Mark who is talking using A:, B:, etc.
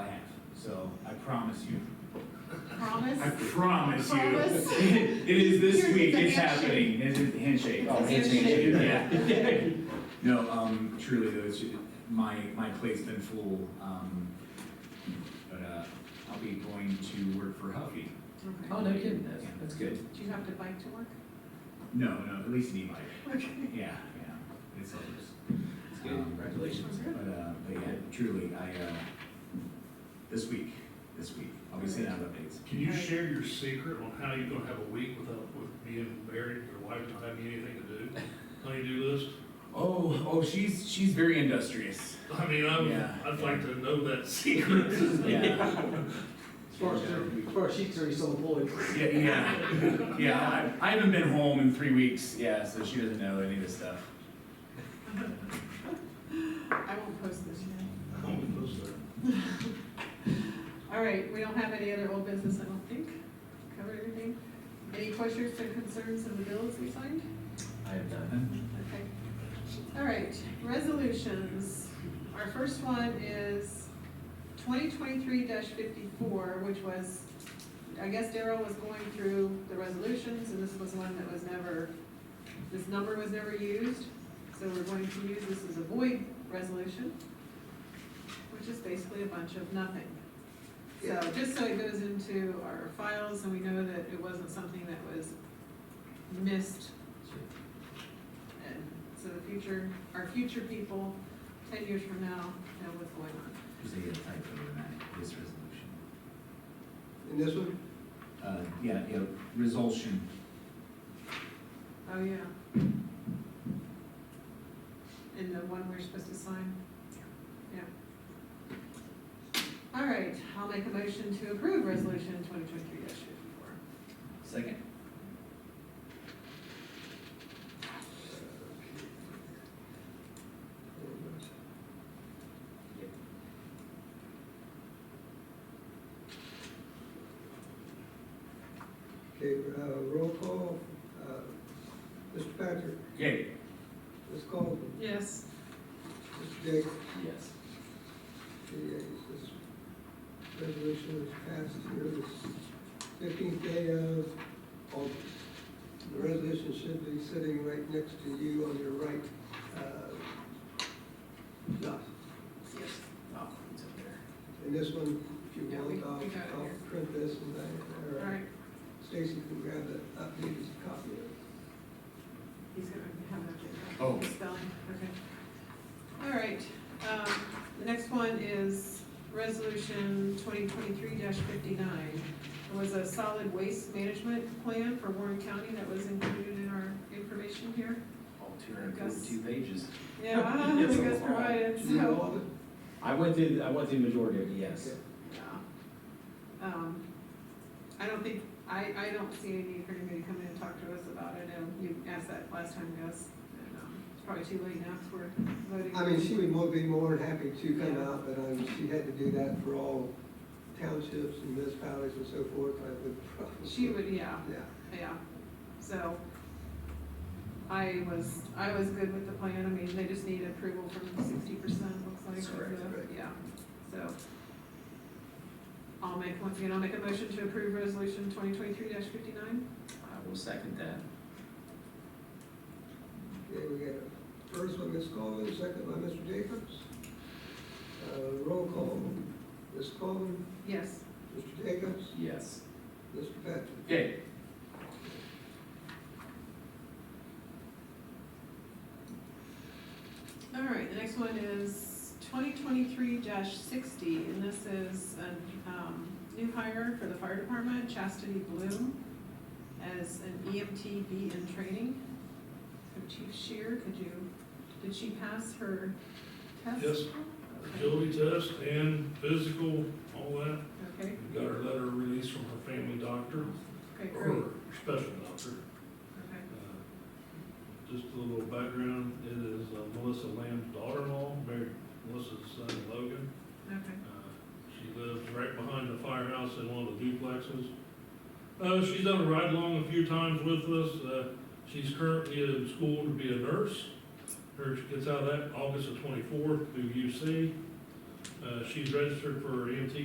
A: promise you. I
B: Promise?
A: promise you.
B: Promise?
A: It is
B: Here's
A: this week,
B: the
A: it's
B: handshake.
A: happening, it is the handshake.
B: Oh, handshake.
A: Yeah. No, um, truly, though, it's, my, my plate's been full, um, but, uh, I'll be going to work for Huffy.
B: Okay.
C: Oh, no kidding, that's, that's good.
B: Do you have to bike to work?
A: No, no, at least an e-bike,
B: Okay.
A: yeah, yeah, it's helps.
C: That's good, congratulations.
A: But, uh, but yeah, truly, I, uh, this week, this week, I'll be sending out updates.
D: Can you share your secret on how you're gonna have a week without, with being married, your wife not having anything to do? Honey-do list?
A: Oh, oh, she's, she's very industrious.
D: I mean, I'm,
A: Yeah.
D: I'd like to know that secret.
A: Yeah,
C: As far as, as far as she's concerned, you're still employed.
A: yeah, yeah, yeah, I, I haven't been home in three weeks, yeah, so she doesn't know any of this stuff.
B: I won't post this yet.
D: I don't know, sir.
B: All right, we don't have any other old business, I don't think. Covered everything. Any questions or concerns of the bills we signed?
C: I have done.
B: Okay. All right, resolutions. Our first one is twenty twenty-three fifty-four, which was, I guess Daryl was going through the resolutions, and this was one that was never, this number was never used, so we're going to use this as a void resolution, which is basically a bunch of nothing. So, just so it goes into our files, and we know that it wasn't something that was missed and so the future, our future people, ten years from now, know what's going on.
A: There's a typo in that, this resolution.
E: In this one?
A: Uh, yeah, yeah, resolution,
B: Oh, yeah. And the one we're supposed to sign? Yeah. All right, I'll make a motion to approve resolution twenty twenty-three fifty-four.
C: Second?
E: Okay, uh, roll call, uh, Mr. Patrick,
A: yay,
E: Ms. Coleman,
B: Yes.
E: Mr. Jacobs,
C: Yes.
E: the, uh, this resolution is passed here this fifteenth day of August. The resolution should be sitting right next to you on your right, uh, dot.
B: Yes.
C: Oh, it's up there.
E: And this one, if you
B: Yeah, we-
E: want, I'll,
B: we got it here.
E: I'll print this and I,
B: All
E: or
B: right,
E: Stacy can grab the updated copy of it.
B: he's gonna have an update.
A: Oh.
B: Spelling, okay. All right, um, the next one is resolution twenty twenty-three fifty-nine. It was a solid waste management plan for Warren County that was included in our information here.
C: All two hundred and forty-two pages.
B: Yeah, I
C: Yes,
B: think
C: a
B: that's
C: lot.
B: provided,
E: Do
B: so.
E: you know all of it?
C: I went through, I went through the majority of it, yes.
E: Okay.
B: Yeah. Um, I don't think, I, I don't see any need for anybody to come in and talk to us about it, and you asked that last time, Gus, and, um, it's probably too late now, because we're voting.
E: I mean, she would more, be more than happy to come out, but, um, she had to do that for all townships and municipalities and so forth, I would probably.
B: She would, yeah,
E: Yeah,
B: yeah, so, I was, I was good with the plan, I mean, they just need approval from sixty percent, looks like.
C: That's
B: of
C: correct,
B: the-
E: right.
B: Yeah, so. I'll make, once again, I'll make a motion to approve resolution twenty twenty-three fifty-nine.
C: I will second that.
E: okay, we got a first by Ms. Coleman, second by Mr. Jacobs. Uh, roll call, Ms. Coleman,
B: Yes.
E: Mr. Jacobs,
C: Yes.
E: Mr. Patrick.
A: yay.
B: All right, the next one is twenty twenty-three sixty, and this is a, um, new hire for the fire department, Chastity Bloom, as an EMT B in training. So Chief Shear, could you, did she pass her test?
D: Yes. Agility test and physical, all that.
B: Okay,
D: We Got her letter of release from her family doctor,
B: okay,
D: or
B: great,
D: her special doctor.
B: okay,
D: Uh, Just a little background, it is uh, Melissa Lamb's daughter-in-law, married Melissa's son Logan.
B: okay.
D: Uh, She lives right behind the firehouse in one of the duplexes. Uh, she's done a ride-along a few times with us. Uh, she's currently in school to be a nurse. Her, she gets out of that August the twenty-fourth through UC. Uh, she's registered for EMT